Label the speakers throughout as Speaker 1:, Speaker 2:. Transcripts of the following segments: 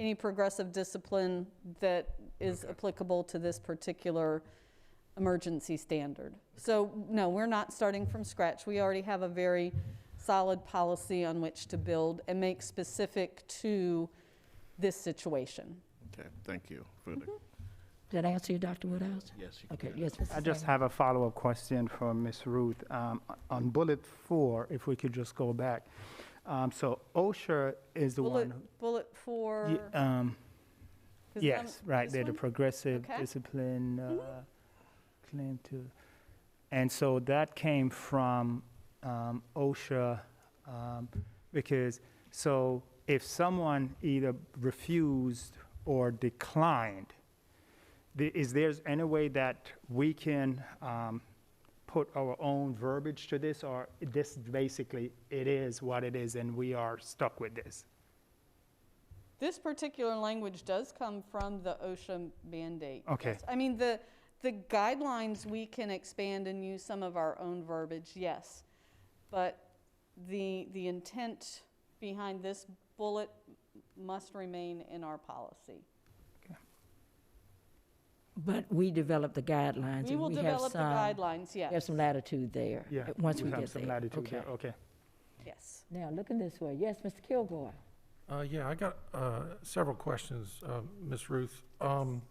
Speaker 1: any progressive discipline that is applicable to this particular emergency standard. So, no, we're not starting from scratch. We already have a very solid policy on which to build and make specific to this situation.
Speaker 2: Okay, thank you for the,
Speaker 3: Did I answer you, Dr. Woodhouse?
Speaker 2: yes, you
Speaker 3: Okay,
Speaker 2: can.
Speaker 3: yes, Mrs.
Speaker 4: I just
Speaker 3: Sanders.
Speaker 4: have a follow-up question for Ms. Ruth. Um, On bullet four, if we could just go back. Um, So OSHA is the
Speaker 1: Bullet,
Speaker 4: one, who-
Speaker 1: bullet four.
Speaker 4: Ye- um,
Speaker 1: is that
Speaker 4: yes, right,
Speaker 1: this
Speaker 4: they're the
Speaker 1: one?
Speaker 4: progressive
Speaker 1: Okay. Mm-hmm.
Speaker 4: discipline uh, claim to. And so that came from um, OSHA um, because, so if someone either refused or declined, the- is there any way that we can um, put our own verbiage to this, or this basically, it is what it is, and we are stuck with this?
Speaker 3: Uh,
Speaker 1: This particular language does come from the OSHA mandate.
Speaker 4: Okay.
Speaker 1: yes. I mean, the, the guidelines, we can expand and use some of our own verbiage, yes. But the, the intent behind this bullet must remain in our policy.
Speaker 3: But we develop the guidelines.
Speaker 1: We
Speaker 3: and
Speaker 1: will
Speaker 3: have
Speaker 1: develop the
Speaker 3: some-
Speaker 1: guidelines, yes.
Speaker 3: There's some latitude there.
Speaker 4: Yeah.
Speaker 3: uh, Once
Speaker 4: you
Speaker 3: we
Speaker 4: have
Speaker 3: get
Speaker 4: some
Speaker 3: there.
Speaker 4: latitude
Speaker 3: Okay.
Speaker 4: Okay.
Speaker 1: Yes.
Speaker 3: Now, looking this way, yes, Mr. Kilgore?
Speaker 5: Uh, yeah, I got, uh, several questions, uh, Ms. Ruth. Um,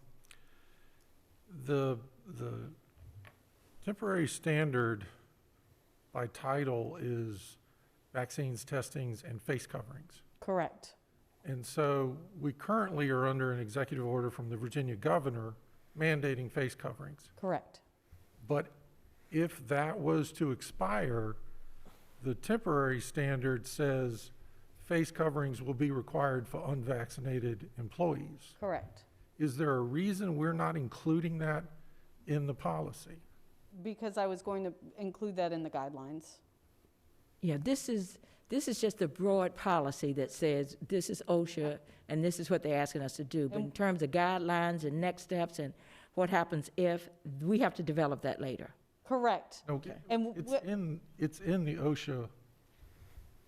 Speaker 5: the, the temporary standard by title is vaccines, testings, and face coverings.
Speaker 1: Correct.
Speaker 5: And so we currently are under an executive order from the Virginia governor mandating face coverings.
Speaker 1: Correct.
Speaker 5: But if that was to expire, the temporary standard says face coverings will be required for unvaccinated employees.
Speaker 1: Correct.
Speaker 5: Is there a reason we're not including that in the policy?
Speaker 1: Because I was going to include that in the guidelines.
Speaker 3: Yeah, this is, this is just a broad policy that says this is OSHA and this is what they're asking us to do. But in terms of guidelines and next steps and what happens if, we have to develop that later.
Speaker 1: Correct.
Speaker 5: Okay.
Speaker 1: And
Speaker 5: It's
Speaker 1: wh-
Speaker 5: in, it's in the OSHA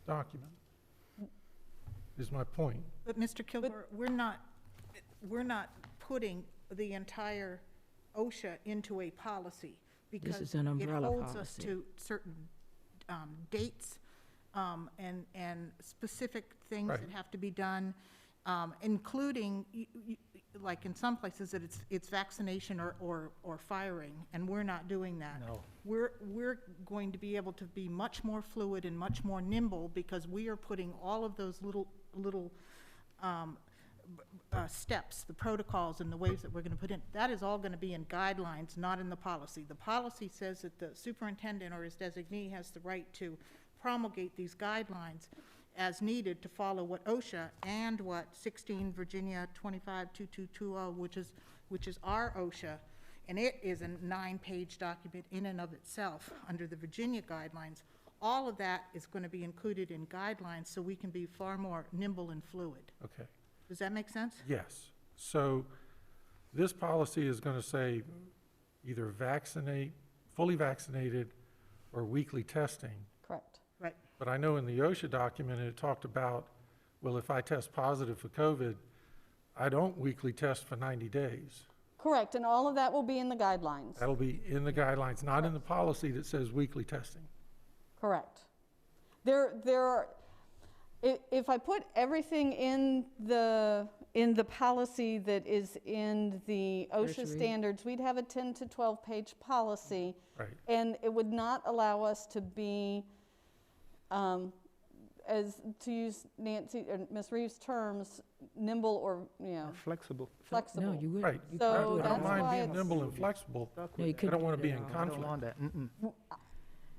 Speaker 5: document, is my point.
Speaker 6: But Mr. Kilgore, we're not, we're not putting the entire OSHA into a policy because
Speaker 3: is an umbrella
Speaker 6: It holds us
Speaker 3: policy.
Speaker 6: to certain um, dates um, and, and specific things
Speaker 5: Right.
Speaker 6: that have to be done, um, including, y- y- like in some places, that it's, it's vaccination or, or, or firing, and we're not doing that.
Speaker 4: No.
Speaker 6: We're, we're going to be able to be much more fluid and much more nimble because we are putting all of those little, little um, b- uh, steps, the protocols and the ways that we're going to put in, that is all going to be in guidelines, not in the policy. The policy says that the superintendent or his designee has the right to promulgate these guidelines as needed to follow what OSHA and what 16 Virginia 252220, which is, which is our OSHA, and it is a nine-page document in and of itself under the Virginia guidelines. All of that is going to be included in guidelines, so we can be far more nimble and fluid.
Speaker 5: Okay.
Speaker 6: Does that make sense?
Speaker 5: Yes. So this policy is going to say either vaccinate, fully vaccinated, or weekly testing.
Speaker 1: Correct.
Speaker 6: Right.
Speaker 5: But I know in the OSHA document, it talked about, well, if I test positive for COVID, I don't weekly test for 90 days.
Speaker 1: Correct. And all of that will be in the guidelines.
Speaker 5: That'll be in the guidelines, not in the policy that says weekly testing.
Speaker 1: Correct. There, there are, i- if I put everything in the, in the policy that is in the OSHA
Speaker 3: Nursery.
Speaker 1: standards, we'd have a 10 to 12-page policy.
Speaker 5: Right.
Speaker 1: And it would not allow us to be, um, as, to use Nancy, or Ms. Reeves' terms, nimble or, you know,
Speaker 4: Flexible.
Speaker 1: flexible.
Speaker 3: No, you wouldn't.
Speaker 5: Right.
Speaker 3: You
Speaker 1: So
Speaker 3: couldn't do it
Speaker 5: I
Speaker 1: that's
Speaker 5: don't
Speaker 3: all.
Speaker 1: why
Speaker 5: mind being
Speaker 1: it's-
Speaker 5: nimble and flexible.
Speaker 3: No, you
Speaker 5: I
Speaker 3: couldn't
Speaker 5: don't want to
Speaker 3: do
Speaker 5: be
Speaker 3: it
Speaker 5: in
Speaker 3: all.
Speaker 4: I don't
Speaker 5: conflict.
Speaker 4: want that. Mm-mm.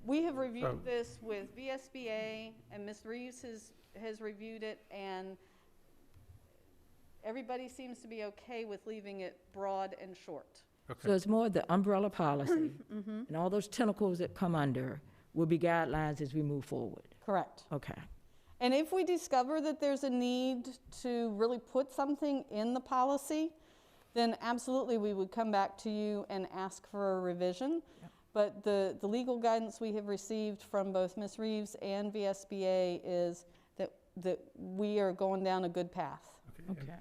Speaker 1: We have reviewed
Speaker 5: So-
Speaker 1: this with VSBA, and Ms. Reeves has, has reviewed it, and everybody seems to be okay with leaving it broad and short.
Speaker 3: So
Speaker 5: Okay,
Speaker 3: it's more the umbrella policy and all those tentacles that come under will be guidelines as we move forward.
Speaker 1: Correct.
Speaker 3: Okay.
Speaker 1: And if we discover that there's a need to really put something in the policy, then absolutely, we would come back to you and ask for a revision. But the, the legal guidance we have received from both Ms. Reeves and VSBA is that, that we are going down a good path.
Speaker 5: okay. And